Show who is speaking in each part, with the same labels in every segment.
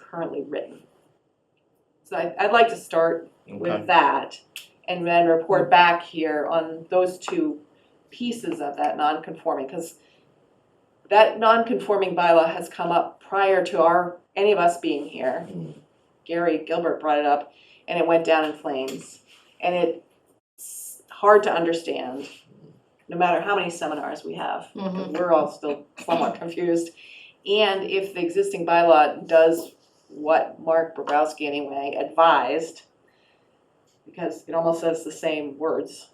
Speaker 1: currently written. So I, I'd like to start
Speaker 2: Okay, Mm.
Speaker 1: with that and then report back here on those two pieces of that non-conforming, because that non-conforming bylaw has come up prior to our, any of us being here.
Speaker 2: Mm.
Speaker 1: Gary Gilbert brought it up and it went down in flames. And it's hard to understand, no matter how many seminars we have.
Speaker 2: Mm-hmm.
Speaker 3: Mhm.
Speaker 1: We're all still somewhat confused. And if the existing bylaw does what Mark Bobrowski anyway advised, because it almost says the same words,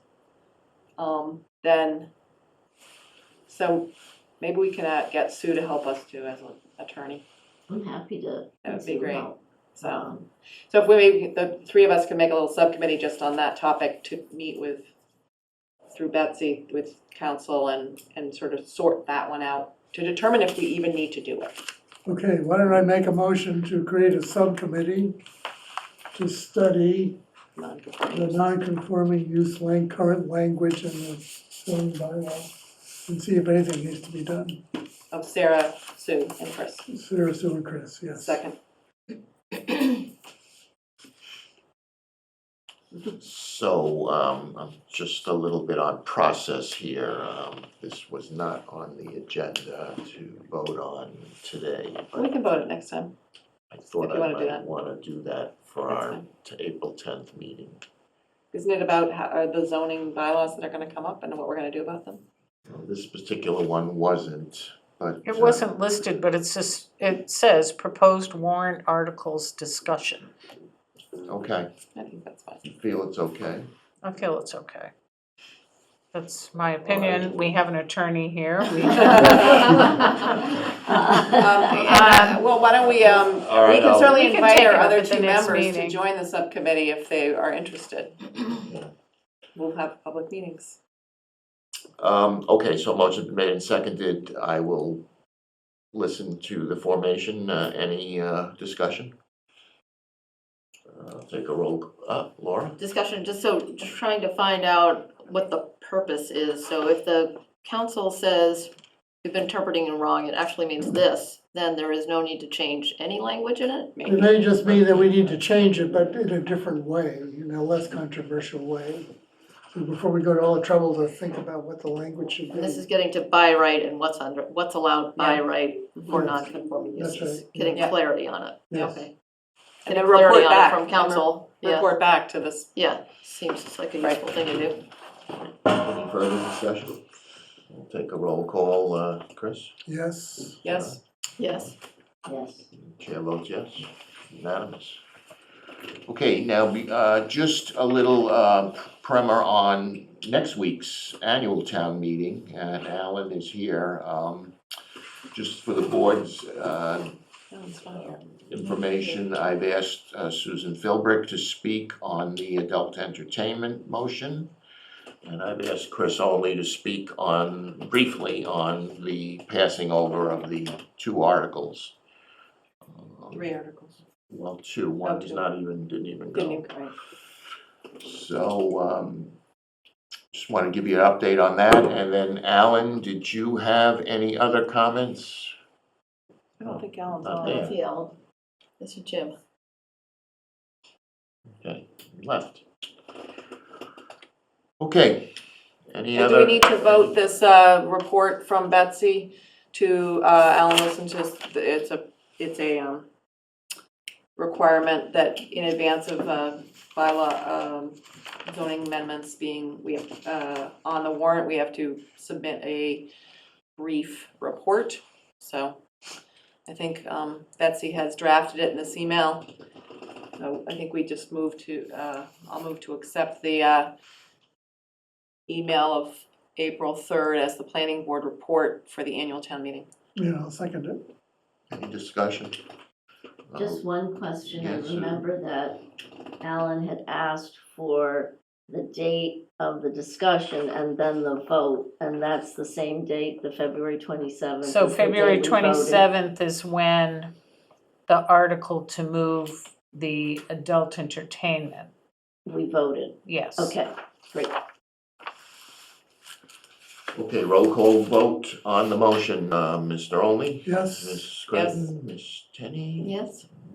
Speaker 1: um, then, so maybe we can uh, get Sue to help us too as an attorney.
Speaker 3: I'm happy to.
Speaker 1: That would be great.
Speaker 3: help.
Speaker 1: So,
Speaker 4: um,
Speaker 1: so if we, maybe the three of us can make a little subcommittee just on that topic to meet with, through Betsy, with council and, and sort of sort that one out to determine if we even need to do it.
Speaker 5: Okay, why don't I make a motion to create a subcommittee to study the
Speaker 1: Non-conforming.
Speaker 5: non-conforming use lang, current language in the zoning bylaw and see if anything needs to be done.
Speaker 1: Of Sarah, Sue, and Chris.
Speaker 5: Sarah, Sue, and Chris, yes.
Speaker 1: Second.
Speaker 2: so, um, I'm just a little bit on process here, um, this was not on the agenda to vote on today,
Speaker 1: We
Speaker 2: but
Speaker 1: can vote it next time.
Speaker 2: I thought
Speaker 1: If you
Speaker 2: I
Speaker 1: wanna do
Speaker 2: might
Speaker 1: that.
Speaker 2: wanna do that for
Speaker 1: That's
Speaker 2: our
Speaker 1: fine.
Speaker 2: t- April tenth meeting.
Speaker 1: Isn't it about how, are the zoning bylaws that are gonna come up and what we're gonna do about them?
Speaker 2: Now, This particular one wasn't, but.
Speaker 6: It
Speaker 2: uh,
Speaker 6: wasn't listed, but it's just, it says proposed warrant articles discussion.
Speaker 2: Okay,
Speaker 1: I think that's fine.
Speaker 2: you feel it's okay?
Speaker 6: I feel it's okay. That's my opinion. We have an attorney here. We-
Speaker 1: Um, and, uh, well, why don't we, um,
Speaker 2: All
Speaker 1: we
Speaker 2: right,
Speaker 1: can
Speaker 2: I'll-
Speaker 1: certainly
Speaker 6: We can
Speaker 1: invite
Speaker 6: take
Speaker 1: our
Speaker 6: it up
Speaker 1: other
Speaker 6: at the
Speaker 1: two
Speaker 6: next
Speaker 1: members to
Speaker 6: meeting.
Speaker 1: join the subcommittee if they are interested.
Speaker 2: Yeah.
Speaker 1: We'll have public meetings.
Speaker 2: Um, okay, so motion's been made and seconded, I will listen to the formation, uh, any, uh, discussion? Uh, take a roll, uh, Laura?
Speaker 3: Discussion, just so, just trying to find out what the purpose is, so if the council says we've been interpreting it wrong, it actually means this, then there is no need to change any language in it?
Speaker 5: It may just mean that we need to change it, but in a different way, you know, less controversial way. So Before we go to all the trouble to think about what the language should be.
Speaker 3: And this is getting to by right and what's under, what's allowed by right for
Speaker 5: Yes.
Speaker 3: non-conforming
Speaker 5: That's
Speaker 3: uses,
Speaker 5: right.
Speaker 3: getting
Speaker 1: Yeah.
Speaker 3: clarity on it,
Speaker 5: Yes.
Speaker 3: okay.
Speaker 1: And
Speaker 3: Getting
Speaker 1: then report
Speaker 3: clarity on it
Speaker 1: back.
Speaker 3: from council, yeah,
Speaker 1: Report back to this.
Speaker 3: yeah, seems like a useful thing to do.
Speaker 2: Any further discussion? We'll take a roll call, uh, Chris?
Speaker 5: Yes,
Speaker 1: Yes,
Speaker 3: Yes,
Speaker 4: Yes.
Speaker 2: Chair votes yes, unanimous. Okay, now, we, uh, just a little, uh, primer on next week's annual town meeting, and Alan is here, um, just for the board's, uh,
Speaker 1: sounds fine.
Speaker 2: um, information, I've asked uh, Susan Philbrick to speak on the adult entertainment motion. And I've asked Chris Oley to speak on, briefly, on the passing over of the two articles. Um,
Speaker 1: Three articles.
Speaker 2: Well, two, one
Speaker 1: Oh,
Speaker 2: is
Speaker 1: two.
Speaker 2: not even, didn't even
Speaker 1: Didn't
Speaker 2: go.
Speaker 1: even, right.
Speaker 2: So, um, just wanna give you an update on that, and then Alan, did you have any other comments?
Speaker 1: I don't think Alan's
Speaker 2: Not
Speaker 1: on.
Speaker 2: there.
Speaker 3: yeah, I'll- Mr. Jim.
Speaker 2: Okay, left. Okay, any
Speaker 1: And
Speaker 2: other?
Speaker 1: do we need to vote this, uh, report from Betsy to, uh, Alan Wilson, just, it's a, it's a, um, requirement that in advance of, uh, bylaw, um, zoning amendments being, we have, uh, on the warrant, we have to submit a brief report, so I think, um, Betsy has drafted it in this email. So I think we just move to, uh, I'll move to accept the, uh, email of April 3rd as the planning board report for the annual town meeting.
Speaker 5: yeah, I'll second it.
Speaker 2: Any discussion?
Speaker 4: Just one question, I
Speaker 2: yes, sir.
Speaker 4: remember that Alan had asked for the date of the discussion and then the vote, and that's the same date, the February twenty-seventh.
Speaker 6: So February twenty-seventh is when the article to move the adult entertainment,
Speaker 4: We voted,
Speaker 6: yes.
Speaker 4: okay, great.
Speaker 2: Okay, roll call vote on the motion, uh, Mr. Only,
Speaker 5: Yes.
Speaker 2: Ms. Scranton, Ms. Tenney.
Speaker 3: Yes.